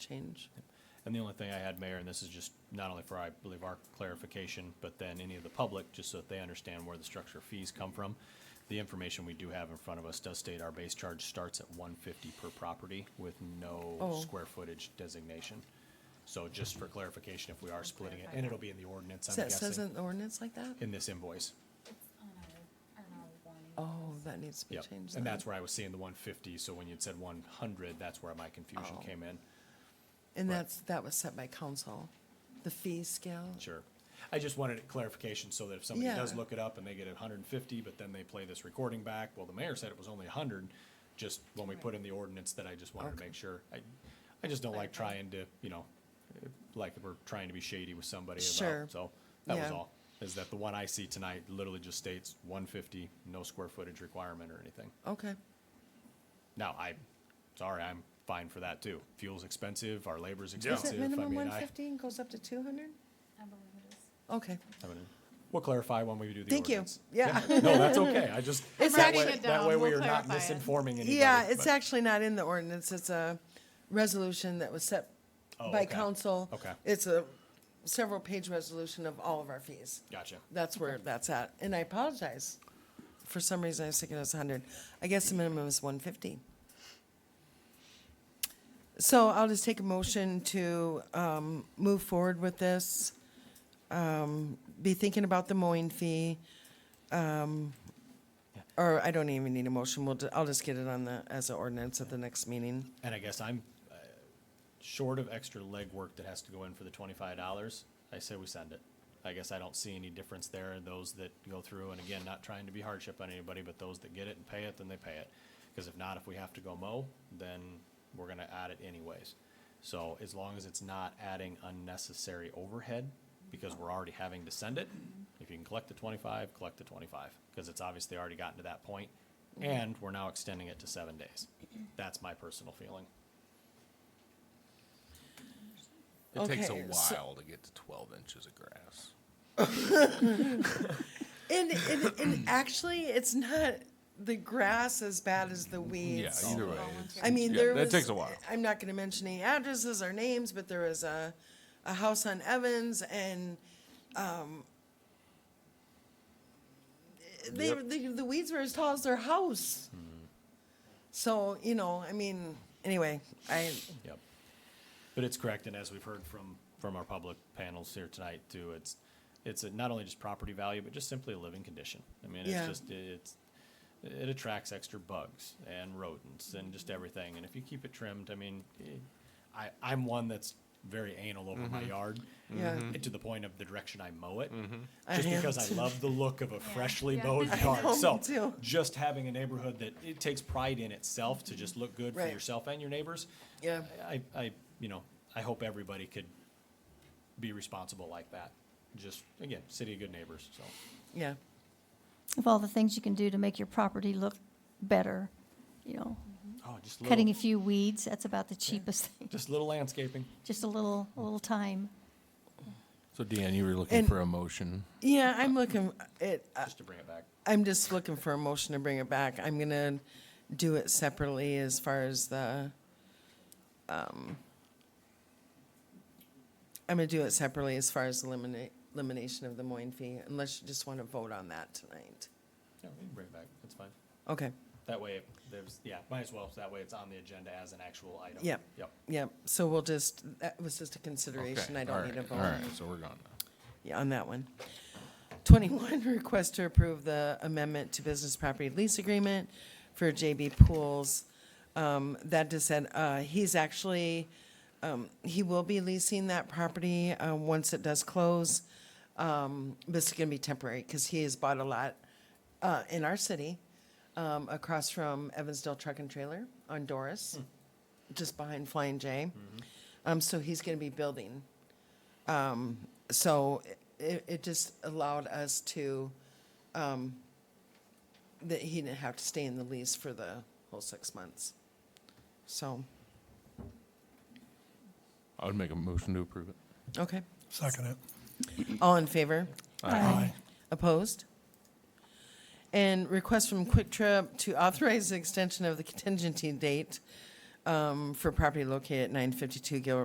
change. And the only thing I had, Mayor, and this is just not only for, I believe, our clarification, but then any of the public, just so that they understand where the structure fees come from. The information we do have in front of us does state our base charge starts at one fifty per property with no Oh. square footage designation. So just for clarification, if we are splitting it, and it'll be in the ordinance, Is I'm that says guessing, in the ordinance like that? in this invoice. It's on our, on our warning. Oh, that needs to be Yep. changed. And then. that's where I was seeing the one fifty, so when you'd said one hundred, that's where my confusion Oh. came in. And right. that's, that was set by council, the fee scale. Sure. I just wanted clarification so that if somebody does Yeah. look it up and they get it hundred and fifty, but then they play this recording back, well, the mayor said it was only hundred, just when we put in the ordinance that I just wanted to Okay. make sure. I, I just don't like Clarify. trying to, you know, like we're trying to be shady with somebody Sure. about, so that was Yeah. all. Is that the one I see tonight literally just states one fifty, no square footage requirement or anything. Okay, Now, I, sorry, I'm fine for that too. Fuel's expensive, our labor's is expensive. it I minimum mean, I- one fifty and goes up to two hundred? I believe it is. Okay, I mean, We'll clarify when we do the Thank you. ordinance. Yeah. No, that's okay. I just, It's that actually- way, that way Writing it we down, are not we'll clarify it. misinforming anybody. yeah, it's but- actually not in the ordinance, it's a resolution that was set Oh, by okay. council. Okay. It's a several page resolution of all of our fees. Gotcha. That's where that's at, and I apologize. For some reason, I was thinking it was hundred. I guess the minimum is one fifty. So I'll just take a motion to, um, move forward with this. Um, be thinking about the mowing fee. Um, or I don't even need a motion, we'll, ju- I'll just get it on the, as an ordinance at the next meeting. And I guess I'm uh, short of extra legwork that has to go in for the twenty-five dollars. I say we send it. I guess I don't see any difference there. Those that go through, and again, not trying to be hardship on anybody, but those that get it and pay it, then they pay it. Because if not, if we have to go mow, then we're gonna add it anyways. So as long as it's not adding unnecessary overhead, because we're already having to send it, if you can collect the twenty-five, collect the twenty-five, because it's obviously already gotten to that point, And we're now extending it to seven days. That's my personal feeling. It takes a Okay, so- while to get to 12 inches of grass. And, and, and actually, it's not the grass as bad as the Yeah, weeds. either way. I mean, there was. That takes a while. I'm not gonna mention any addresses or names, but there was a, a house on Evans and, um, they, Yep. the, the weeds were as tall as their house. So, you know, I mean, anyway, I, Yep. But it's correct, and as we've heard from, from our public panels here tonight too, it's, it's not only just property value, but just simply a living condition. I mean, Yeah. it's just, it's, it attracts extra bugs and rodents and just everything, and if you keep it trimmed, I mean, eh, I, I'm one that's very anal over my yard. Yeah. eh, To the point of the direction I mow it, I just am because I too. love the look of a freshly Yeah. mowed I yard, know, so. me too. Just having a neighborhood that, it takes pride in itself to just look good for Right. yourself and your neighbors. yeah, I, I, you know, I hope everybody could be responsible like that. Just, again, city of good neighbors, so. yeah. of all the things you can do to make your property look better, you know, Oh, just cutting a little, few weeds, that's about the cheapest thing. just little landscaping. Just a little, a little time. So, Dan, you were looking And- for a motion. Yeah, I'm looking, it, I- just to bring it back. I'm just looking for a motion to bring it back. I'm gonna do it separately as far as the, um, I'm gonna do it separately as far as eliminate, elimination of the Moyne fee, unless you just wanna vote on that tonight. Yeah, we can bring it back, that's fine. Okay, That way, there's, yeah, might as well, so that way it's on the agenda as an actual item. Yep. Yep, yep, so we'll just, that was just a consideration. I don't need a vote. All right, so we're gone now. Yeah, on that one. Twenty-one, request to approve the amendment to business property lease agreement for JB Pools. Um, that just said, uh, he's actually, um, he will be leasing that property, uh, once it does close. Um, this is gonna be temporary, cause he has bought a lot, uh, in our city, um, across from Evansdale Truck and Trailer on Doris, just behind Flying J. Um, so he's gonna be building so it, it just allowed us to, um, that he didn't have to stay in the lease for the whole six months. So, I would make a motion to approve it. okay, Second it. all in favor? Aye. Opposed? And request from Quick Trip to authorize the extension of the contingency date um, for property located at nine fifty-two Gilroy